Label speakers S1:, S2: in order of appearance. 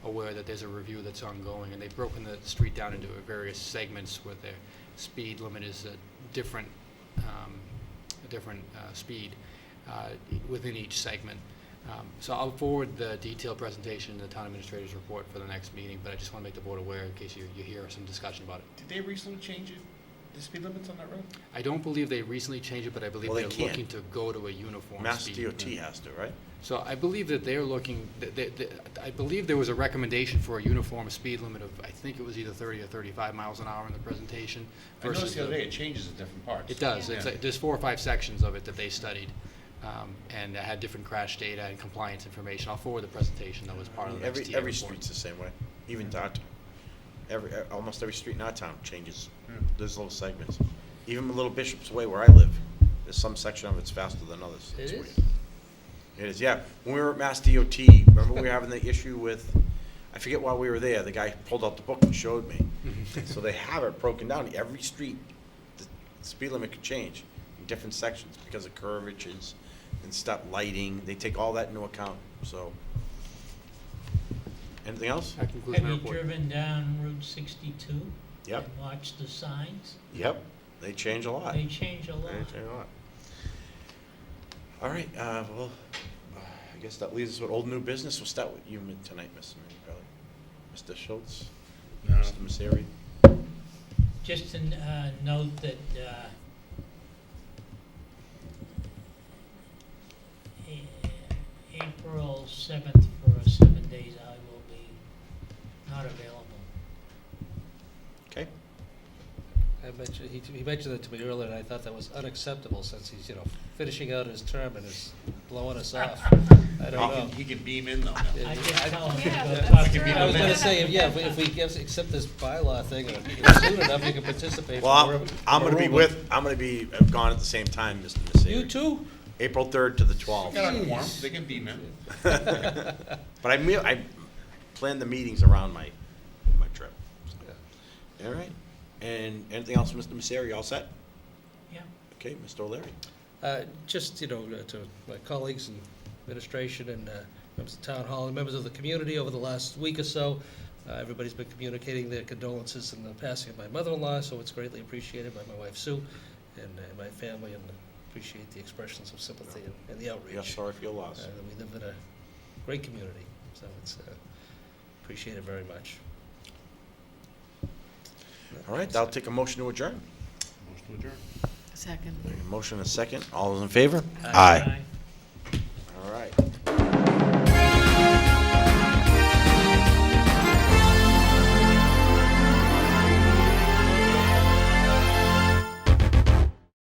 S1: aware that there's a review that's ongoing, and they've broken the street down into various segments where the speed limit is a different, um, a different uh, speed uh, within each segment. Um, So I'll forward the detailed presentation and the town administrator's report for the next meeting, but I just want to make the board aware in case you, you hear some discussion about it.
S2: Did they recently change it, the speed limits on that road?
S1: I don't believe they recently changed it, but I believe
S3: Well, they
S1: they're
S3: can't.
S1: looking to go to a uniform
S3: Mass
S1: speed.
S3: DOT has to, right?
S1: So I believe that they're looking, that- that- that- I believe there was a recommendation for a uniform speed limit of, I think it was either 30 or 35 miles an hour in the presentation
S2: I noticed
S1: versus
S2: the other
S1: the-
S2: day it changes at different parts.
S1: It does.
S2: Yeah.
S1: It's, like- there's four or five sections of it that they studied um, and had different crash data and compliance information. I'll forward the presentation that was part of the
S3: Every,
S1: next year
S3: every
S1: report.
S3: street's the same way, even downtown. Every, e- almost every street in our town changes,
S2: Hmm.
S3: there's little segments. Even Little Bishop's Way where I live, there's some section of it's faster than others. It's weird. It is, yeah. When we were at Mass DOT, remember we were having the issue with, I forget why we were there, the guy pulled out the book and showed me.
S1: Mm-hmm.
S3: So they have it broken down, every street, the speed limit could change in different sections because of curvatures and stuff, lighting, they take all that into account, so. Anything else?
S1: That concludes
S4: Have
S1: my
S4: you
S1: report.
S4: driven down Route 62?
S3: Yep.
S4: And watched the signs?
S3: Yep, they change a lot.
S4: They change a lot.
S3: They change a lot. All right, uh, well, uh, I guess that leaves us with old new business. We'll start with you mi- tonight, Mr. Minipelli. Mr. Schultz?
S2: No.
S3: Mr. Misery?
S4: Just to uh, note that uh, A- April 7th for seven days I will be not available.
S3: Okay,
S5: I mentioned, he, he mentioned it to me earlier, and I thought that was unacceptable, since he's, you know, finishing out his term and is blowing us off. I don't know.
S2: He can beam in though.
S5: Yeah,
S4: I
S5: he-
S4: just tell him to
S6: Yeah,
S4: go
S6: that's
S4: talk to
S6: true.
S4: me.
S5: I was gonna
S6: minute.
S5: say, yeah, if we- if we give, accept this bylaw thing, and you know, soon enough, you can participate. from
S3: well, I'm-
S5: wherever-
S3: I'm gonna be
S5: wherever.
S3: with, I'm gonna be uh, gone at the same time, Mr. Misery.
S5: You too?
S3: April third to the
S2: They
S3: twelfth.
S2: got a quorum, they can beam in.
S3: But I me, I plan the meetings around my, my trip. so. All right, and anything else, Mr. Misery? All set?
S4: Yeah.
S3: Okay, Mr. O'Leary?
S5: Uh, Just, you know, uh, to my colleagues and administration and uh, members of Town Hall and members of the community over the last week or so, uh, everybody's been communicating their condolences in the passing of my mother-in-law, so it's greatly appreciated by my wife Sue and uh, my family, and appreciate the expressions of sympathy and- and the outreach.
S3: Yeah, sorry for your
S5: Uh,
S3: loss.
S5: that We live in a great community, so it's uh, appreciated very much.
S3: All right, I'll take a motion to adjourn.
S2: Motion to adjourn.
S6: Second.
S3: A Motion and a second. All those in favor?
S4: Aye.